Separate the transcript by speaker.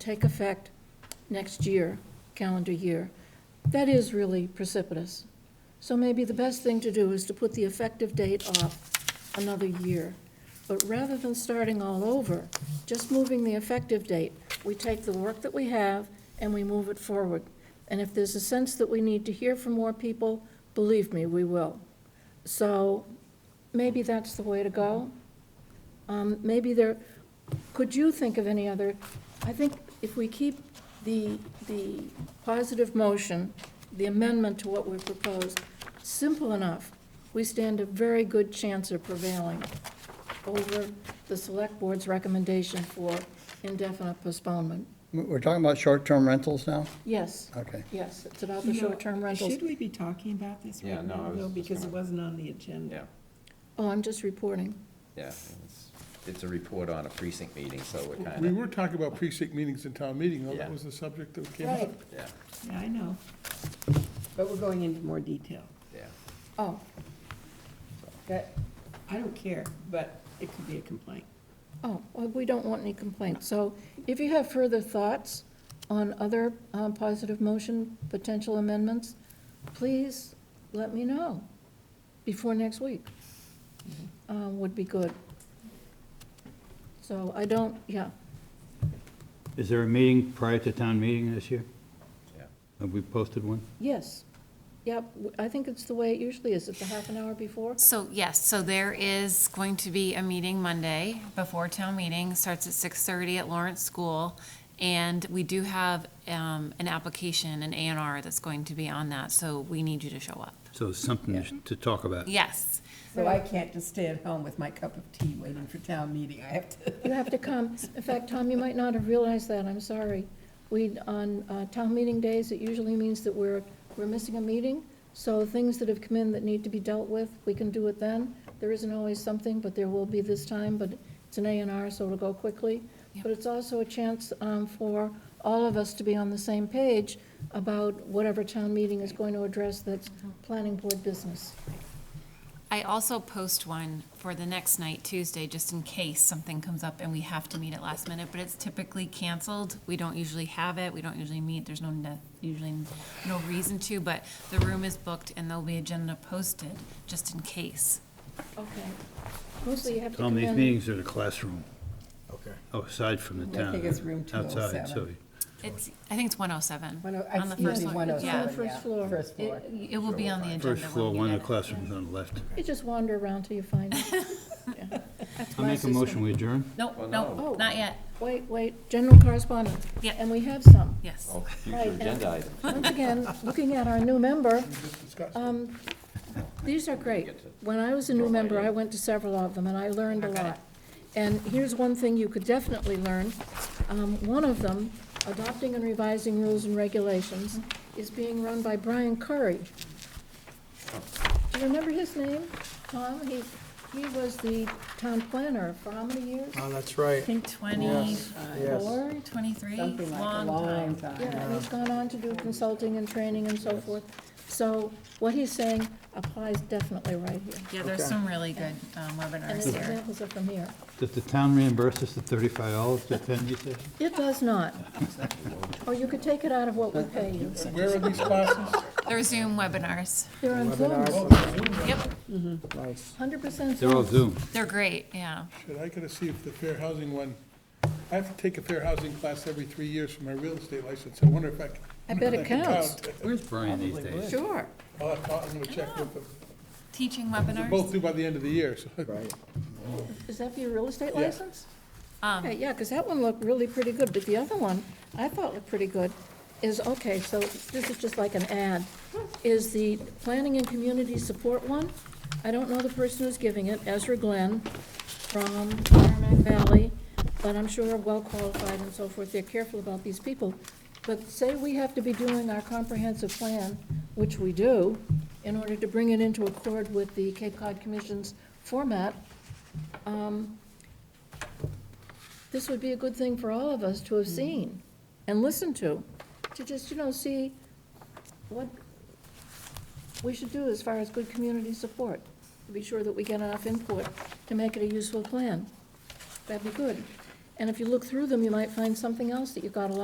Speaker 1: take effect next year, calendar year, that is really precipitous. So maybe the best thing to do is to put the effective date off another year. But rather than starting all over, just moving the effective date, we take the work that we have and we move it forward. And if there's a sense that we need to hear from more people, believe me, we will. So maybe that's the way to go. Um, Maybe there, could you think of any other, I think if we keep the, the positive motion, the amendment to what we proposed, simple enough, we stand a very good chance of prevailing over the select board's recommendation for indefinite postponement.
Speaker 2: We're talking about short-term rentals now?
Speaker 1: Yes,
Speaker 2: Okay.
Speaker 1: yes, it's about
Speaker 3: You
Speaker 1: the
Speaker 3: know,
Speaker 1: short-term rentals.
Speaker 3: Should we be talking about this
Speaker 4: Yeah,
Speaker 3: right
Speaker 4: no, I
Speaker 3: now,
Speaker 4: was
Speaker 3: though,
Speaker 4: just
Speaker 3: because it
Speaker 4: gonna-
Speaker 3: wasn't on the agenda?
Speaker 4: Yeah,
Speaker 1: Oh, I'm just reporting.
Speaker 4: yeah. It's- It's a report on a precinct meeting, so we're kind
Speaker 5: We
Speaker 4: of,
Speaker 5: were talking about precinct meetings in town meeting, though. that
Speaker 4: Yeah.
Speaker 5: was the subject that came
Speaker 1: Right,
Speaker 5: up.
Speaker 4: yeah,
Speaker 3: Yeah, I know. But we're going into more detail.
Speaker 4: yeah.
Speaker 1: oh,
Speaker 3: That, I don't care, but it could be a complaint.
Speaker 1: oh, well, we don't want any complaints. So if you have further thoughts on other um, positive motion, potential amendments, please let me know before next week. Uh, Would be good. So I don't, yeah,
Speaker 6: Is there a meeting prior to town meeting this year?
Speaker 4: Yeah.
Speaker 6: Have we posted one?
Speaker 1: yes, yep, w- I think it's the way it usually is, it's a half an hour before.
Speaker 7: So, yes, so there is going to be a meeting Monday before town meeting, starts at six thirty at Lawrence School. And we do have, um, an application, an A and R that's going to be on that, so we need you to show up.
Speaker 6: So something to talk about.
Speaker 7: Yes,
Speaker 3: So I can't just stay at home with my cup of tea waiting for town meeting, I have to.
Speaker 1: You have to come. In fact, Tom, you might not have realized that, I'm sorry. We, on uh, town meeting days, it usually means that we're, we're missing a meeting. So things that have come in that need to be dealt with, we can do it then. There isn't always something, but there will be this time, but it's an A and R, so it'll go quickly.
Speaker 7: Yep.
Speaker 1: But it's also a chance um, for all of us to be on the same page about whatever town meeting is going to address that's planning board business.
Speaker 7: I also post one for the next night, Tuesday, just in case something comes up and we have to meet at last minute, but it's typically canceled. We don't usually have it, we don't usually meet, there's no, ne- usually no reason to, but the room is booked and there'll be agenda posted, just in case.
Speaker 1: Okay. Mostly you have to
Speaker 6: Tom,
Speaker 1: come
Speaker 6: these
Speaker 1: in-
Speaker 6: meetings are in the classroom, Oh,
Speaker 8: Okay.
Speaker 6: aside from the
Speaker 3: I
Speaker 6: town.
Speaker 3: think it's room
Speaker 6: Outside, so
Speaker 3: 207.
Speaker 7: It's, I think it's one oh seven.
Speaker 3: One oh- I see
Speaker 1: Yes,
Speaker 3: it's
Speaker 1: it's
Speaker 3: on the
Speaker 1: on the
Speaker 3: 107,
Speaker 1: first
Speaker 3: yeah,
Speaker 1: floor.
Speaker 3: first
Speaker 1: It-
Speaker 3: floor.
Speaker 7: It will be on the agenda.
Speaker 6: first
Speaker 7: when
Speaker 6: floor,
Speaker 7: we
Speaker 6: one
Speaker 7: get
Speaker 6: of the
Speaker 7: it.
Speaker 6: classrooms on the left.
Speaker 1: You just wander around till you find it.
Speaker 6: I'll make a motion, we adjourn.
Speaker 7: Nope,
Speaker 1: no.
Speaker 7: nope, not yet,
Speaker 1: Wait, wait, general correspondence.
Speaker 7: Yeah.
Speaker 1: And we have some.
Speaker 7: yes.
Speaker 4: Oh,
Speaker 1: Right,
Speaker 4: future
Speaker 1: and-
Speaker 4: agenda item.
Speaker 1: Once again, looking at our new member,
Speaker 5: Discuss.
Speaker 1: um, these are great. When I was a new member, I went to several of them, and I learned a
Speaker 7: Okay.
Speaker 1: lot. And here's one thing you could definitely learn. Um, One of them, adopting and revising rules and regulations, is being run by Brian Curry. Do you remember his name, Tom? He, he was the town planner for how many years?
Speaker 8: Oh, that's
Speaker 7: I
Speaker 8: right.
Speaker 7: think
Speaker 8: Yes.
Speaker 7: twenty-four, twenty-three,
Speaker 3: Something like a
Speaker 7: long time.
Speaker 3: long time.
Speaker 1: Yeah, and he's gone on to do consulting and training and so forth. So what he's saying applies definitely right here.
Speaker 7: Yeah, there's
Speaker 8: Okay.
Speaker 7: some really good um,
Speaker 1: And
Speaker 7: webinars
Speaker 1: his
Speaker 7: here.
Speaker 1: examples are from here.
Speaker 6: Does the town reimburse us the thirty-five dollars to attend these sessions?
Speaker 1: It does not. Or you could take it out of what we pay you.
Speaker 5: Where are these classes?
Speaker 7: They're Zoom webinars,
Speaker 1: They're on Zoom,
Speaker 5: Oh,
Speaker 7: yep,
Speaker 8: Nice.
Speaker 1: hundred percent
Speaker 6: They're all
Speaker 1: Zoom.
Speaker 6: Zoom.
Speaker 7: they're great, yeah.
Speaker 5: Should I gotta see if the fair housing one, I have to take a fair housing class every three years for my real estate license. I wonder if I can.
Speaker 1: I bet it
Speaker 5: I can
Speaker 1: counts.
Speaker 5: count.
Speaker 6: Where's Brian these days?
Speaker 1: Sure.
Speaker 5: I'll have to, I'm gonna check with them.
Speaker 7: Teaching
Speaker 5: They're both
Speaker 7: webinars,
Speaker 5: due by the end of the year, so.
Speaker 8: Right.
Speaker 1: Is that for your real estate
Speaker 5: Yeah.
Speaker 1: license?
Speaker 7: Um,
Speaker 1: Okay, yeah, because that one looked really pretty good, but the other one I thought looked pretty good is, okay, so this is just like an ad, is the Planning and Community Support one. I don't know the person who's giving it, Ezra Glenn from Merrimack Valley, but I'm sure well-qualified and so forth. They're careful about these people. But say we have to be doing our comprehensive plan, which we do, in order to bring it into accord with the Cape Cod Commission's format, um, this would be a good thing for all of us to have seen and listened to, to just, you know, see what we should do as far as good community support, to be sure that we get enough input to make it a useful plan. That'd be good. And if you look through them, you might find something else that you got a lot